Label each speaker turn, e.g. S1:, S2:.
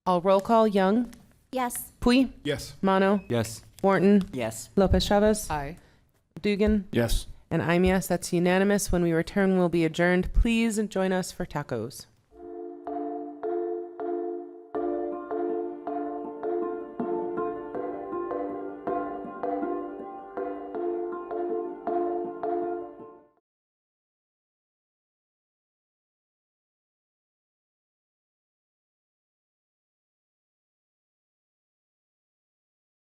S1: I'll roll call Young,
S2: Yes.
S1: Pui,
S3: Yes.
S1: Mono,
S3: Yes.
S1: Wharton,
S4: Yes.
S1: Lopez Chavez,
S4: Aye.
S1: Dugan,
S3: Yes.
S1: and I'm yes. That's unanimous. When we return, we'll be adjourned. Please join us for tacos.